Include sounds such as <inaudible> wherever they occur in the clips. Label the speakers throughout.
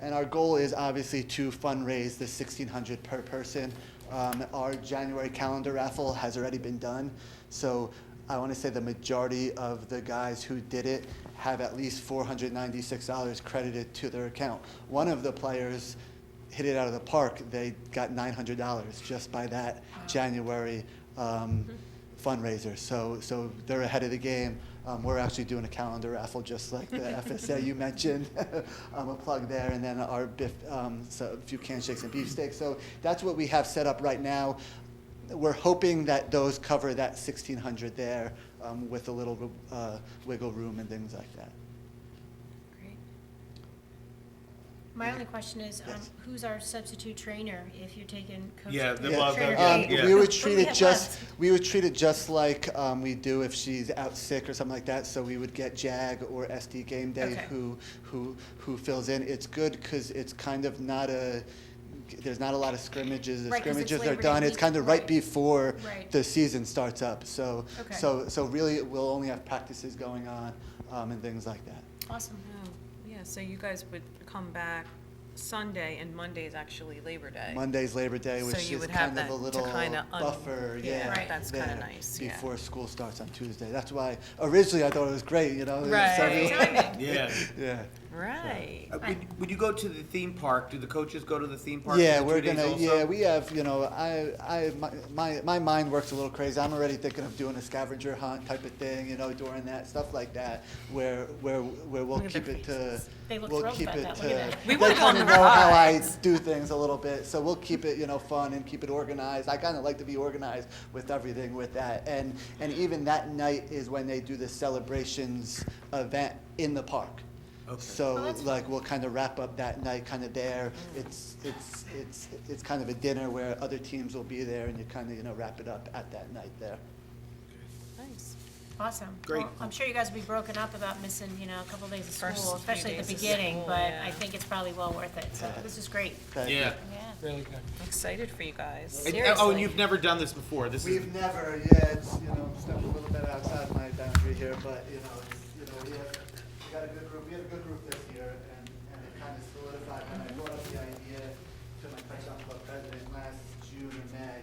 Speaker 1: And our goal is obviously to fundraise the sixteen hundred per person. Um, our January calendar raffle has already been done, so I want to say the majority of the guys who did it have at least four hundred ninety-six dollars credited to their account. One of the players hit it out of the park. They got nine hundred dollars just by that January um, fundraiser. So, so they're ahead of the game. Um, we're actually doing a calendar raffle, just like the FSA you mentioned. <laughs> um, a plug there, and then our biff, um, so a few canned shakes and beefsteaks. So that's what we have set up right now. We're hoping that those cover that sixteen hundred there, um, with a little uh, wiggle room and things like that.
Speaker 2: Great. My only question is, um,
Speaker 1: Yes.
Speaker 2: who's our substitute trainer if you're taking coach?
Speaker 3: Yeah, the-
Speaker 2: trainer
Speaker 3: well,
Speaker 2: Trainer
Speaker 3: yeah,
Speaker 1: Um,
Speaker 2: Kate?
Speaker 3: yeah.
Speaker 1: we
Speaker 2: What
Speaker 1: would
Speaker 2: do
Speaker 1: treat
Speaker 2: we
Speaker 1: it
Speaker 2: have
Speaker 1: just,
Speaker 2: left?
Speaker 1: we would treat it just like, um, we do if she's out sick or something like that, so we would get JAG or SD Game Day
Speaker 2: Okay.
Speaker 1: who, who, who fills in. It's good, cause it's kind of not a, there's not a lot of scrimmages, the
Speaker 2: Right, 'cause it's
Speaker 1: scrimmages are
Speaker 2: Labor Day
Speaker 1: done, it's
Speaker 2: week,
Speaker 1: kind of right
Speaker 2: right.
Speaker 1: before
Speaker 2: Right.
Speaker 1: the season starts up, so,
Speaker 2: Okay.
Speaker 1: so, so really, we'll only have practices going on, um, and things like that.
Speaker 2: Awesome.
Speaker 4: Oh, yeah, so you guys would come back Sunday, and Monday is actually Labor Day.
Speaker 1: Monday's Labor Day,
Speaker 4: So
Speaker 1: which
Speaker 4: you
Speaker 1: is
Speaker 4: would have
Speaker 1: kind of
Speaker 4: that
Speaker 1: a
Speaker 4: to
Speaker 1: little
Speaker 4: kinda un-
Speaker 1: buffer,
Speaker 4: yeah,
Speaker 1: yeah.
Speaker 2: Right.
Speaker 4: that's kinda
Speaker 1: there
Speaker 4: nice, yeah.
Speaker 1: Before school starts on Tuesday. That's why originally I thought it was great, you know? it's
Speaker 4: Right.
Speaker 1: everyone-
Speaker 2: Timing.
Speaker 3: Yeah.
Speaker 1: <laughs> Yeah.
Speaker 4: Right.
Speaker 3: <laughs> Uh, Would, would you go to the theme park? Do the coaches go to the theme park?
Speaker 1: Yeah,
Speaker 3: for the
Speaker 1: we're
Speaker 3: two days
Speaker 1: gonna.
Speaker 3: also?
Speaker 1: Yeah, we have. You know, I, I, my, my, my mind works a little crazy. I'm already thinking of doing a scavenger hunt type of thing. You know, during that stuff like that, where, where, where we'll
Speaker 4: Look at
Speaker 1: keep
Speaker 4: their
Speaker 1: it to.
Speaker 2: They look
Speaker 1: we'll
Speaker 2: thrilled
Speaker 1: keep
Speaker 2: about
Speaker 1: it
Speaker 2: that.
Speaker 1: to.
Speaker 2: Look at that.
Speaker 4: We
Speaker 1: they
Speaker 4: wanna go on
Speaker 1: kinda
Speaker 4: the
Speaker 1: know how I
Speaker 4: rides.
Speaker 1: do things a little bit, so we'll keep it, you know, fun and keep it organized. I kind of like to be organized with everything with that, and and even that night is when they do the celebrations event in the park.
Speaker 3: Okay.
Speaker 2: Oh,
Speaker 1: So
Speaker 2: that's
Speaker 1: like we'll kind of wrap up that night kind of there. It's, it's, it's, it's kind of a dinner where other teams will be there and you kind of, you know, wrap it up at that night there.
Speaker 4: Nice.
Speaker 2: Awesome.
Speaker 3: Great.
Speaker 2: Well, I'm sure you guys will be broken up about missing, you know, a couple days of
Speaker 4: First
Speaker 2: school,
Speaker 4: few
Speaker 2: especially at the
Speaker 4: days of
Speaker 2: beginning,
Speaker 4: school,
Speaker 2: but
Speaker 4: yeah.
Speaker 2: I think it's probably well worth it. So
Speaker 1: Yeah.
Speaker 2: this is great.
Speaker 1: Thank you.
Speaker 3: Yeah.
Speaker 2: Yeah.
Speaker 3: Really good.
Speaker 4: I'm excited for you guys.
Speaker 3: And- oh, and oh, you've never done this before. This is
Speaker 1: We've never, yeah, it's, you know, stepped a little bit outside my boundary here, but, you know, it's, you know, we have, we got a good group, we had a good group this year, and, and it kind of solidified when I brought up the idea to my Python Club president last June or May,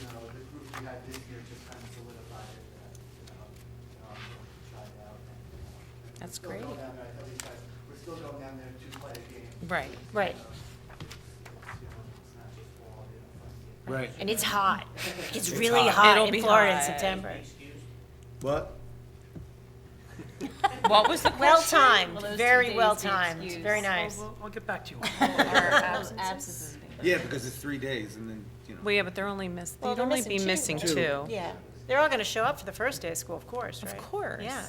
Speaker 1: you know, the group we had this year just kind of solidified it, that, you know, you know, I'm going to try it out. and, you know, and we're
Speaker 4: That's
Speaker 1: still going
Speaker 4: great.
Speaker 1: down there, I tell these guys, we're still going down there to play a game.
Speaker 4: Right.
Speaker 5: Right.
Speaker 1: you know, it's- it's, you know, it's not just all, you know, fun games.
Speaker 3: right.
Speaker 5: And it's hot. It's really
Speaker 4: hot.
Speaker 5: hot in
Speaker 4: It'll be
Speaker 5: Florida in
Speaker 4: hot.
Speaker 5: September.
Speaker 3: What?
Speaker 4: What was the
Speaker 5: Well
Speaker 4: question?
Speaker 5: timed, very well timed, very nice.
Speaker 6: I'll get back to
Speaker 4: <laughs>
Speaker 6: you.
Speaker 3: Yeah, because it's three days, and then you know.
Speaker 4: Well, yeah, but they're only miss,
Speaker 5: Well,
Speaker 4: they'd
Speaker 5: they're
Speaker 4: only
Speaker 5: missing
Speaker 4: be
Speaker 5: two,
Speaker 4: missing
Speaker 5: right?
Speaker 4: two.
Speaker 5: Yeah, they're all gonna show up for the first day of school, of course, right?
Speaker 4: Of course.
Speaker 5: Yeah,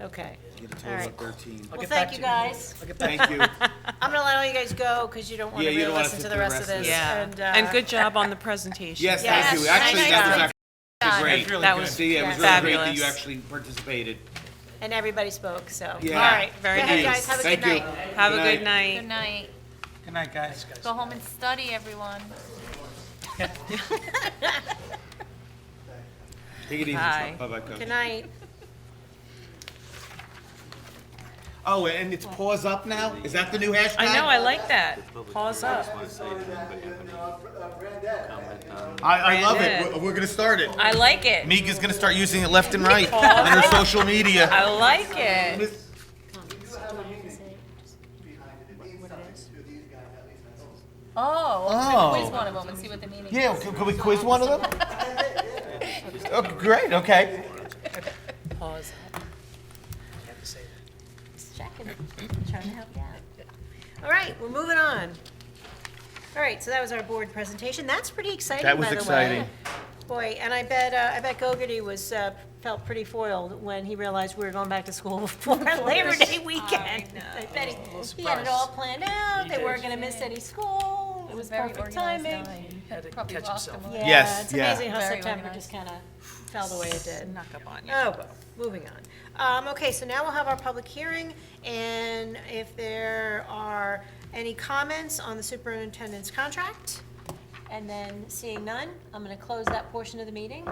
Speaker 5: okay.
Speaker 3: You get a total
Speaker 5: All right.
Speaker 3: of thirteen.
Speaker 5: Well,
Speaker 4: get
Speaker 5: thank
Speaker 4: back
Speaker 5: you
Speaker 4: to you.
Speaker 5: guys.
Speaker 3: Thank you.
Speaker 5: I'm gonna let all you guys go, because you don't wanna
Speaker 3: Yeah, you
Speaker 5: really
Speaker 3: don't wanna
Speaker 5: listen
Speaker 3: sit
Speaker 5: to the rest of this.
Speaker 4: Yeah.
Speaker 5: uh,
Speaker 4: And good job on the presentation.
Speaker 3: Yes,
Speaker 5: Yes,
Speaker 3: thank you.
Speaker 5: nice
Speaker 3: Actually, that was
Speaker 5: job.
Speaker 3: actually great.
Speaker 4: really That good. was
Speaker 3: See, yeah, it was
Speaker 4: yeah.
Speaker 3: really great that you
Speaker 4: fabulous.
Speaker 3: actually participated.
Speaker 5: And everybody spoke, so, all
Speaker 3: Yeah.
Speaker 5: right.
Speaker 4: Very
Speaker 5: Good night,
Speaker 4: nice.
Speaker 5: guys, have a good
Speaker 3: Thank you.
Speaker 5: night.
Speaker 4: Have a
Speaker 3: Good
Speaker 4: good
Speaker 7: Good
Speaker 4: night.
Speaker 7: night.
Speaker 6: Good night, guys.
Speaker 7: Go home and study, everyone.
Speaker 3: Take it easy.
Speaker 4: Bye.
Speaker 3: Bye, bye, coach.
Speaker 5: Good night.
Speaker 3: Oh, and it's pause up now. Is that the new hashtag?
Speaker 4: I know, I like that. Pause up.
Speaker 3: I, I love
Speaker 4: Brandon.
Speaker 3: it. We're, we're gonna start it.
Speaker 4: I like it.
Speaker 3: Meek is gonna start using it left and right on her social media.
Speaker 4: I like it.
Speaker 7: Oh,
Speaker 3: Oh.
Speaker 7: quiz one of them and see what the meaning
Speaker 3: Yeah,
Speaker 7: is.
Speaker 3: could, could we quiz one of them?
Speaker 4: <laughs>
Speaker 3: okay, great. Okay.
Speaker 4: Pause up.
Speaker 5: Just checking, trying to help you out. All right, we're moving on. All right, so that was our board presentation. That's pretty exciting, by
Speaker 3: That
Speaker 5: the way.
Speaker 3: was exciting.
Speaker 5: Boy, and I bet, uh, I bet Gogarty was, uh, felt pretty foiled when he realized we were going back to school <laughs>
Speaker 7: <laughs>
Speaker 5: before Labor Day weekend. I bet he, he had it all planned out, they weren't gonna miss any school, it was
Speaker 7: Very
Speaker 5: perfect
Speaker 7: organized
Speaker 5: timing.
Speaker 7: nine.
Speaker 6: Had to
Speaker 7: Probably
Speaker 6: catch
Speaker 7: lost
Speaker 6: himself.
Speaker 7: them all.
Speaker 5: Yeah,
Speaker 3: Yes,
Speaker 5: it's
Speaker 3: yeah.
Speaker 5: amazing how
Speaker 7: Very
Speaker 5: September
Speaker 7: organized.
Speaker 5: just kinda fell the way it did.
Speaker 4: Knock up on you.
Speaker 5: Oh, well, moving on. Um, okay, so now we'll have our public hearing, and if there are any comments on the superintendent's contract, and then seeing none, I'm gonna close that portion of the meeting,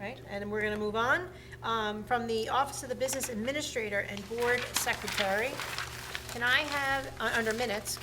Speaker 5: right? And then we're gonna move on, um, from the Office of the Business Administrator and Board Secretary. Can I have, uh, under minutes,